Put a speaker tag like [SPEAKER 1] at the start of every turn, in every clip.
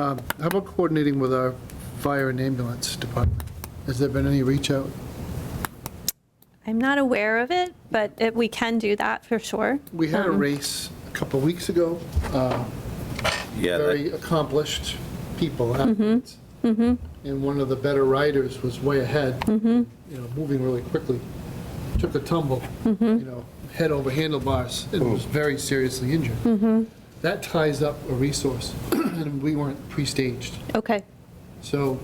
[SPEAKER 1] Um, How about coordinating with our fire and ambulance department? Has there been any reach out?
[SPEAKER 2] I'm not aware of it, but it- we can do that for sure.
[SPEAKER 1] We had a race a couple of weeks ago, uh,
[SPEAKER 3] Yeah, that-
[SPEAKER 1] very accomplished people athletes. And one of the better riders was way ahead, you know, moving really quickly, took a tumble, you know, head over handlebars, and
[SPEAKER 3] Mm.
[SPEAKER 1] was very seriously injured. That ties up a resource, and we weren't pre-staged.
[SPEAKER 2] Okay,
[SPEAKER 1] So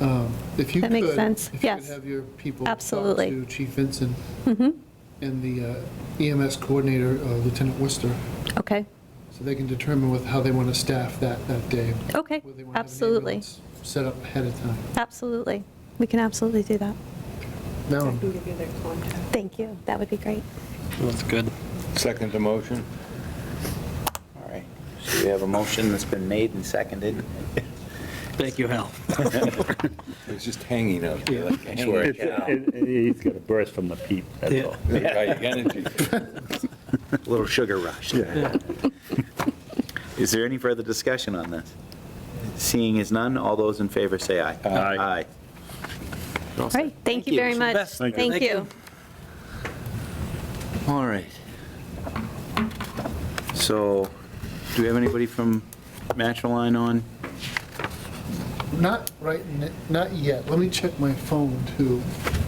[SPEAKER 1] um, if you could.
[SPEAKER 2] That makes sense.
[SPEAKER 1] If you could
[SPEAKER 2] Yes.
[SPEAKER 1] have your people. talk
[SPEAKER 2] Absolutely.
[SPEAKER 1] To Chief Vincent
[SPEAKER 2] Mm-hmm.
[SPEAKER 1] and the uh, EMS coordinator, uh, Lieutenant Worcester,
[SPEAKER 2] okay,
[SPEAKER 1] so they can determine with how they want to staff that, that day.
[SPEAKER 2] okay,
[SPEAKER 1] whether they wanna have an
[SPEAKER 2] absolutely,
[SPEAKER 1] ambulance Set up ahead of time.
[SPEAKER 2] absolutely. We can absolutely do that.
[SPEAKER 1] Now,
[SPEAKER 4] I can give you their contact.
[SPEAKER 2] Thank you, that would be great.
[SPEAKER 5] That's good.
[SPEAKER 3] second the motion.
[SPEAKER 6] All right, so we have a motion that's been made and seconded.
[SPEAKER 5] Thank you, Hal.
[SPEAKER 3] It's just hanging out there like a hanging
[SPEAKER 7] It's-
[SPEAKER 3] cow.
[SPEAKER 7] it- it- He's got a burst from the peep, that's
[SPEAKER 5] Yeah.
[SPEAKER 7] all.
[SPEAKER 3] Right, energy.
[SPEAKER 6] A little sugar rush. Is there any further discussion on this? Seeing is none, all those in favor say aye.
[SPEAKER 7] Aye.
[SPEAKER 6] Aye.
[SPEAKER 2] All right, thank you very much.
[SPEAKER 5] Best. Thank you.
[SPEAKER 2] Thank you.
[SPEAKER 6] All right. So, do we have anybody from Matchaline on?
[SPEAKER 1] Not right, n- not yet. Let me check my phone too.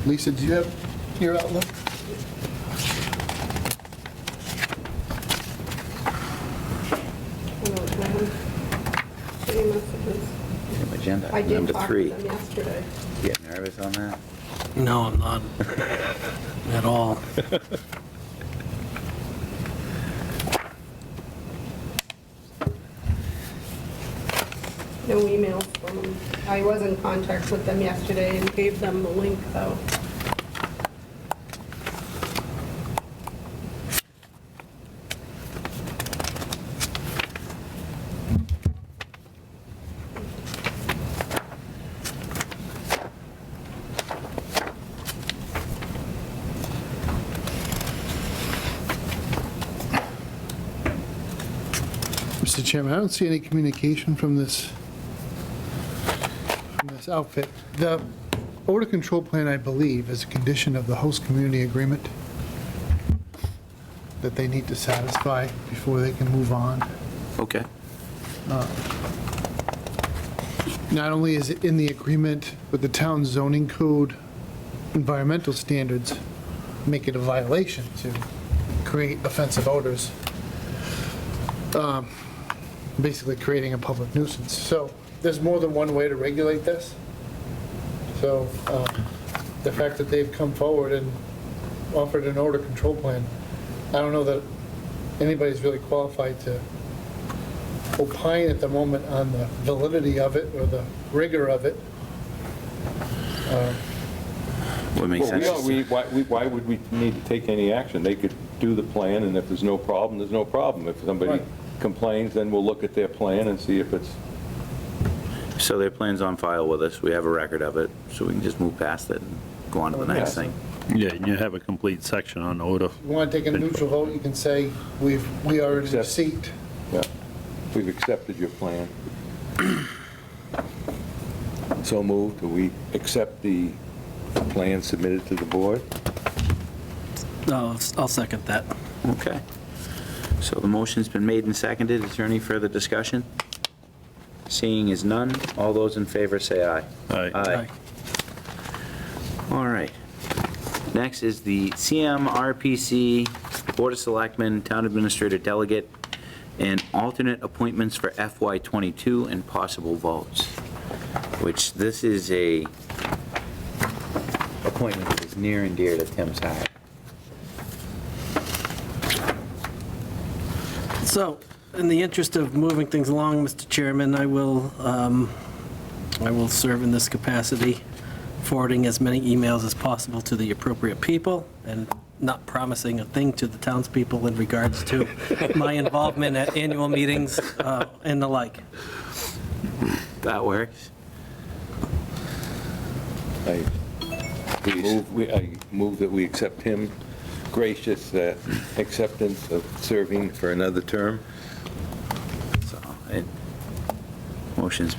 [SPEAKER 1] Lisa, do you have your outlook?
[SPEAKER 4] Hold on, can I have Any messages?
[SPEAKER 6] Agenda
[SPEAKER 4] I
[SPEAKER 6] item
[SPEAKER 4] did
[SPEAKER 6] number
[SPEAKER 4] talk to
[SPEAKER 6] three.
[SPEAKER 4] them yesterday.
[SPEAKER 6] You Get nervous on that?
[SPEAKER 5] No, I'm not at all.
[SPEAKER 4] No emails from them. I was in contact with them yesterday and gave them the link, though.
[SPEAKER 1] Mr. Chairman, I don't see any communication from this, from this outfit. The odor control plan, I believe, is a condition of the host community agreement that they need to satisfy before they can move on.
[SPEAKER 6] Okay.
[SPEAKER 1] Not only is it in the agreement, but the town zoning code environmental standards make it a violation to create offensive odors, Um, basically creating a public nuisance. So there's more than one way to regulate this. So um, the fact that they've come forward and offered an odor control plan, I don't know that anybody's really qualified to opine at the moment on the validity of it or the rigor of it.
[SPEAKER 6] Would make
[SPEAKER 3] Well, we don't-
[SPEAKER 6] sense.
[SPEAKER 3] we- Why we- why would we need to take any action? They could do the plan, and if there's no problem, there's no problem. If somebody
[SPEAKER 1] Right.
[SPEAKER 3] complains, then we'll look at their plan and see if it's,
[SPEAKER 6] So their plan's on file with us, we have a record of it, so we can just move past it and go on to the next
[SPEAKER 3] Yeah.
[SPEAKER 6] thing.
[SPEAKER 7] Yeah, you have a complete section on odor.
[SPEAKER 1] If you want to take a neutral vote, you can say, we've, we are in
[SPEAKER 3] Accept.
[SPEAKER 1] receipt.
[SPEAKER 3] yeah, we've accepted your plan. So moved, do we accept the plan submitted to the board?
[SPEAKER 5] No, I'll second that.
[SPEAKER 6] Okay. So the motion's been made and seconded. Is there any further discussion? Seeing is none. All those in favor say aye.
[SPEAKER 7] Aye.
[SPEAKER 6] Aye. All right. Next is the CMRPC Board of Selectmen, Town Administrator Delegate, and alternate appointments for FY '22 and possible votes, which this is a appointment that is near and dear to Tim's heart.
[SPEAKER 5] So, in the interest of moving things along, Mr. Chairman, I will, um, I will serve in this capacity, forwarding as many emails as possible to the appropriate people, and not promising a thing to the townspeople in regards to my involvement at annual meetings uh, and the like.
[SPEAKER 6] That works?
[SPEAKER 3] I move, we- I move that we accept him, gracious uh, acceptance of serving for another term.
[SPEAKER 6] So, and- well, Motion's